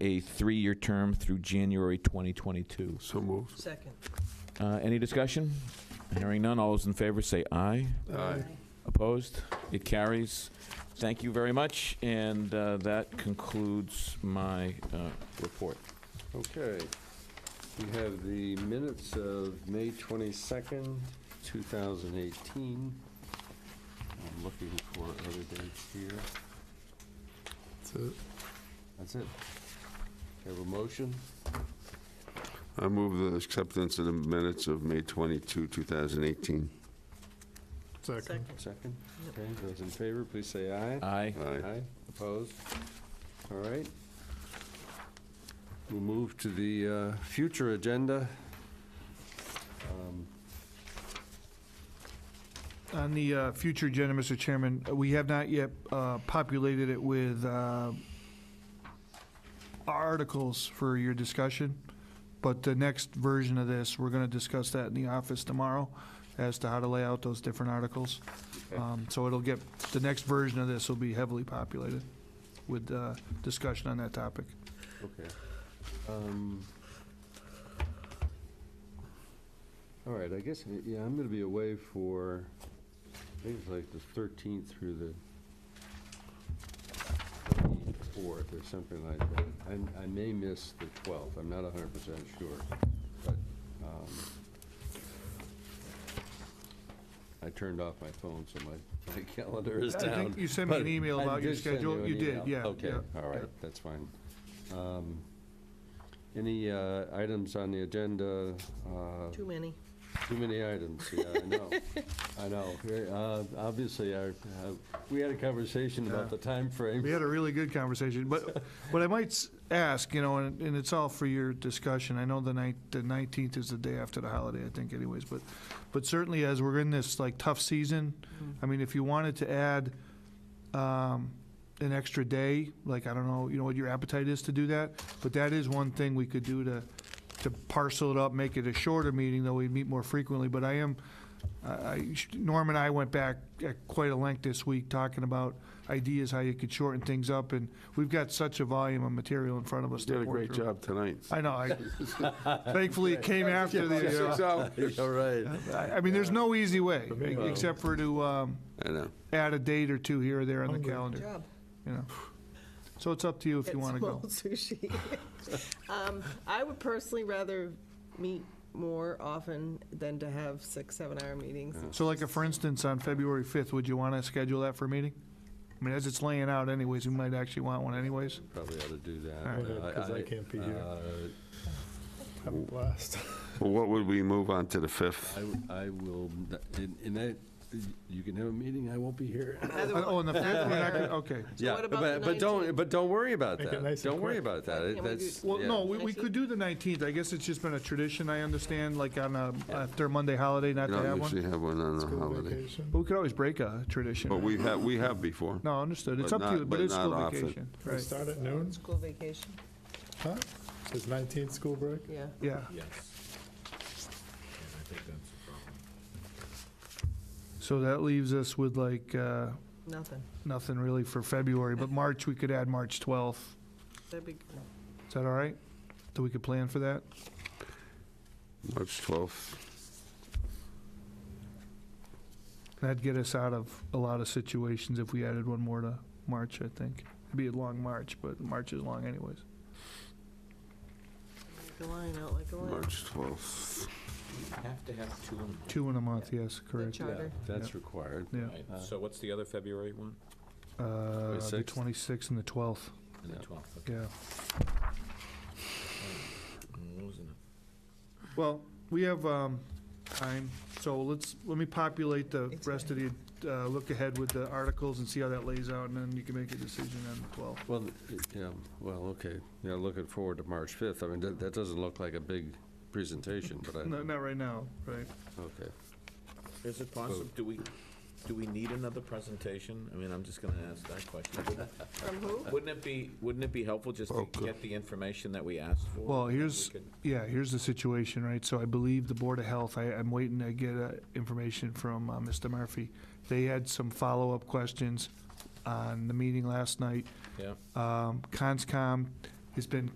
a three-year term through January 2022. So moved. Second. Uh, Any discussion? Hearing none, all those in favor say aye. Aye. Opposed? It carries. Thank you very much, and uh, that concludes my uh, report. Okay. We have the minutes of May 22nd, 2018. I'm looking for other dates here. That's it. That's it. Have a motion? I move the acceptance of the minutes of May 22, 2018. Second. Second? Yep. Okay, those in favor, please say aye. Aye. Aye. Opposed? All right. We'll move to the uh, future agenda. Um, On the uh, future agenda, Mr. Chairman, we have not yet uh, populated it with uh, articles for your discussion, but the next version of this, we're going to discuss that in the office tomorrow as to how to lay out those different articles. Um, So it'll get, the next version of this will be heavily populated with uh, discussion on that topic. Okay. Um, All right, I guess, uh, yeah, I'm going to be away for, I think it's like the 13th through the 4th or something like that. I'm- I may miss the 12th, I'm not 100% sure, but um, I turned off my phone, so my my calendar is I down. think you sent me an But email I about your did send schedule. an You did, email. yeah, Okay, yeah, all right, yeah. that's fine. Um, Any uh, items on the agenda? Uh, Too many. Too many items, yeah, I know, I know. Uh, Obviously, our, uh, we had a conversation about the Yeah. time frame. We had a really good conversation, but what I might s- ask, you know, and, and it's all for your discussion. I know the night, the nineteenth is the day after the holiday, I think, anyways. But, but certainly as we're in this like tough season, I mean, if you wanted to add um, an extra day, like I don't know, you know what your appetite is to do that, but that is one thing we could do to to parcel it up, make it a shorter meeting, though we meet more frequently. But I am I- I- Norm and I went back at quite a length this week talking about ideas how you could shorten things up, and we've got such a volume of material in front of us. Did to a work great through. job tonight. I know. I- Thankfully, it came after the. Six uh, hours. All right. I I mean, there's no easy way, except for to um, I know. add a date or two here or there on the Good calendar. job. You know, so it's up to you if you It's want to go. small sushi. Um, I would personally rather meet more often than to have six, seven-hour meetings. So like, uh, for instance, on February 5th, would you want to schedule that for a meeting? I mean, as it's laying out anyways, we might actually want one anyways. Probably ought to do All that. right. Yeah, 'cause I can't be here. uh, I'm blessed. Well, What would we move on to the 5th? I w- I will, in- in that, you can have a meeting, I won't be here. Otherwise- Oh, on the 5th, we're not gonna- okay. So Yeah, what about but- the But don't, 19th? but don't worry about Make it that. nice and Don't worry quick. about that. It- can't we do- That's. Well, yeah. no, we, we could do the 19th. I guess it's just been a tradition, I understand, like on a, after a Monday holiday, not We to have don't one. usually have one on a holiday. But we could always break a tradition. But we right? have, we have before. No, understood. It's but up to you, not- but but it's not still often. vacation. Right, Start at noon, School vacation, huh? Is 19th school break? yeah. yeah. Yes. And I think that's the problem. So that leaves us with like, uh, Nothing. nothing really for February, but March, we could add March 12th. That'd be, Is that all right? So we could plan for that? March 12th. That'd get us out of a lot of situations if we added one more to March, I think. It'd be a long March, but March is long anyways. a line out like a line. March 12th. Have to have two in Two in a month, yes, correct. Good Yeah, Charter. That's required. Yeah. Right, so what's the other February one? Uh, The 26th? 26th and the 12th, And Yeah. the twelfth, okay. yeah. I'm losing it. Well, we have um, time, so let's, let me populate the It's rest of the, uh, look ahead with the articles and see how that lays out, and then you can make a decision on the 12th. Well, th- yeah, well, okay, yeah, looking forward to March 5th. I mean, that, that doesn't look like a big presentation, but I, No, Not right now, right? okay. Is it possible, do we, do we need another presentation? I mean, I'm just gonna ask that question. Wouldn't- From who? Wouldn't it be, wouldn't it be helpful just to Okay. get the information that we asked for? Well, and then we here's, could- yeah, here's the situation, right? So I believe the Board of Health, I, I'm waiting to get uh, information from uh, Mr. Murphy. They had some follow-up questions on the meeting last night. Yeah, Um, Conscom has been